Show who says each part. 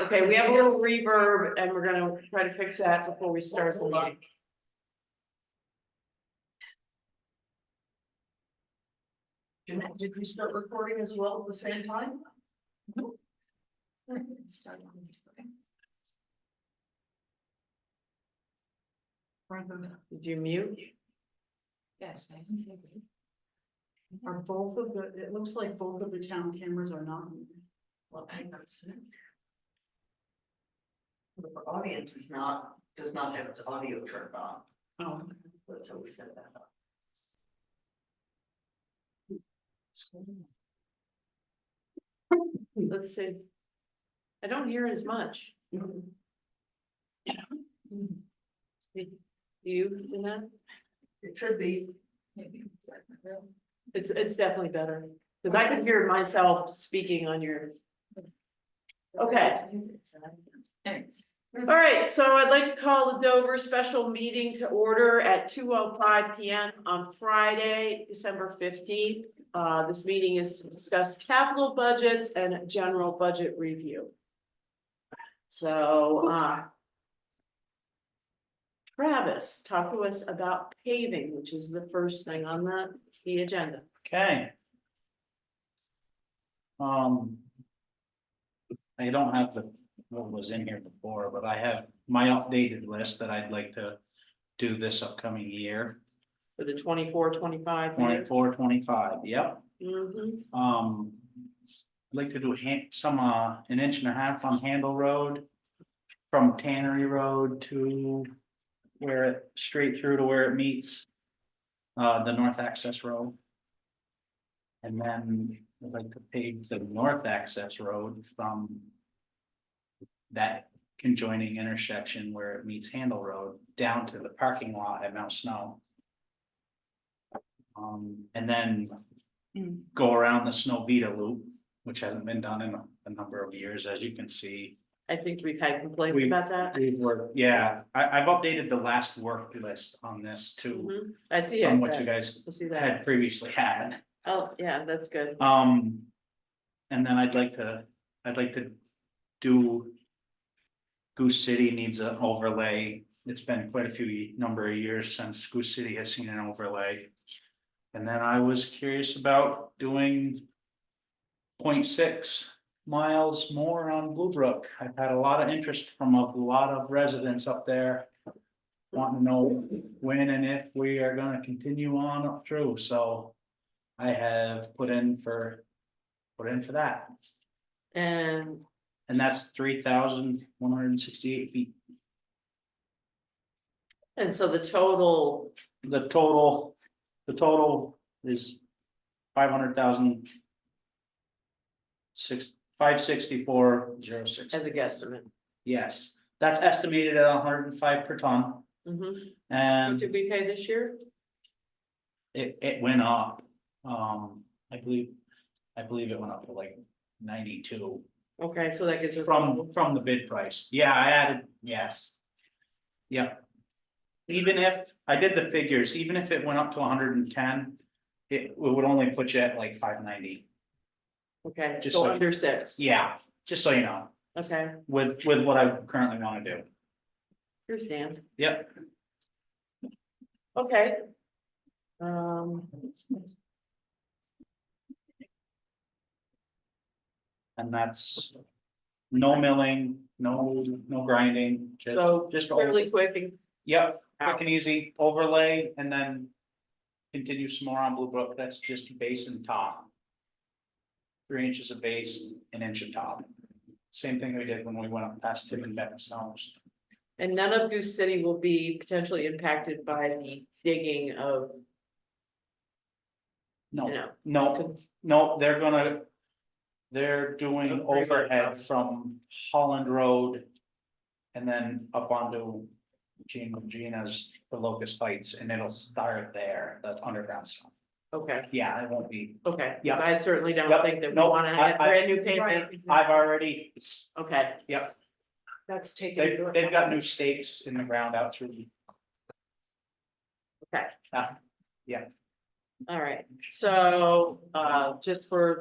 Speaker 1: Okay, we have a little reverb and we're gonna try to fix that before we start the meeting. Did did we start recording as well at the same time? Did you mute?
Speaker 2: Yes.
Speaker 3: Are both of the, it looks like both of the town cameras are not.
Speaker 2: Well, I know it's- The audience is not, does not have its audio turned on,
Speaker 3: Oh,
Speaker 2: that's how we set that up.
Speaker 1: Let's see. I don't hear as much. You, Jeanette?
Speaker 2: It should be.
Speaker 1: It's, it's definitely better, because I could hear myself speaking on your. Okay,
Speaker 2: Thanks.
Speaker 1: all right, so I'd like to call the Dover special meeting to order at two oh five P M on Friday, December fifteenth. Uh, this meeting is to discuss capital budgets and general budget review. So, uh. Travis, talk to us about paving, which is the first thing on the, the agenda.
Speaker 4: Okay. Um. I don't have the, what was in here before, but I have my updated list that I'd like to do this upcoming year,
Speaker 1: For the 24, 25 year.
Speaker 4: twenty-four, twenty-five, yep.
Speaker 1: Mhm.
Speaker 4: Um, I'd like to do han- some, uh, an inch and a half on Handle Road. From Tannery Road to where it, straight through to where it meets. Uh, the north access road. And then I'd like to pave the north access road from. That conjoining intersection where it meets Handle Road down to the parking lot at Mount Snow. Um, and then go around the Snow Beta loop, which hasn't been done in a, a number of years, as you can see.
Speaker 1: I think we've had complaints
Speaker 4: We-
Speaker 1: about that.
Speaker 4: We've worked, yeah, I, I've updated the last work list on this too,
Speaker 1: Mhm. I see it.
Speaker 4: from what you
Speaker 1: but
Speaker 4: guys
Speaker 1: We'll see that.
Speaker 4: had previously had.
Speaker 1: Oh, yeah, that's good.
Speaker 4: Um, and then I'd like to, I'd like to do. Goose City needs an overlay. It's been quite a few, ye- number of years since Goose City has seen an overlay. And then I was curious about doing. 0.6 miles more on Blue Brook. I've had a lot of interest from a lot of residents up there. Wanting to know when and if we are gonna continue on up through, so. I have put in for, put in for that,
Speaker 1: And
Speaker 4: and that's three thousand one hundred and sixty-eight feet.
Speaker 1: and so the total,
Speaker 4: The total, the total is five hundred thousand. Six, five sixty-four, zero six,
Speaker 1: as a guesstimate.
Speaker 4: yes, that's estimated at hundred and five per ton,
Speaker 1: Mhm. What
Speaker 4: and
Speaker 1: did we pay this year?
Speaker 4: it, it went up. Um, I believe, I believe it went up to like ninety-two.
Speaker 1: Okay, so that gives us.
Speaker 4: From, from the bid price, yeah, I added, yes. Yep. Even if, I did the figures, even if it went up to hundred and ten, it would only put you at like five ninety,
Speaker 1: Okay,
Speaker 4: just
Speaker 1: so
Speaker 4: so-
Speaker 1: under six.
Speaker 4: yeah, just so you know,
Speaker 1: Okay,
Speaker 4: with, with what I currently wanna do,
Speaker 1: understand.
Speaker 4: yep.
Speaker 1: Okay. Um,
Speaker 4: And that's no milling, no, no grinding, just,
Speaker 1: so
Speaker 4: just, over-
Speaker 1: really quick and
Speaker 4: yep, quick and easy overlay, and then. Continue some more on Blue Brook, that's just base and top. Three inches of base, an inch of top. Same thing we did when we went up past Tim and Ben's house.
Speaker 1: and none of Goose City will be potentially impacted by the digging of, you
Speaker 4: No,
Speaker 1: know.
Speaker 4: no, no, they're gonna. They're doing overhead from Holland Road. And then up onto Gina, Gina's, the Locust Heights, and it'll start there, the underground stuff.
Speaker 1: Okay.
Speaker 4: Yeah, it won't be,
Speaker 1: Okay,
Speaker 4: Yeah.
Speaker 1: I certainly don't
Speaker 4: Yep.
Speaker 1: think that we
Speaker 4: Nope.
Speaker 1: wanna
Speaker 4: I-
Speaker 1: have
Speaker 4: I-
Speaker 1: brand new pavement.
Speaker 4: I've already,
Speaker 1: Okay,
Speaker 4: yep.
Speaker 3: that's taken.
Speaker 4: They've,
Speaker 3: into
Speaker 4: they've got
Speaker 3: account.
Speaker 4: new stakes in the ground out through.
Speaker 1: Okay.
Speaker 4: Ah, yeah.
Speaker 1: all right, so, uh, just for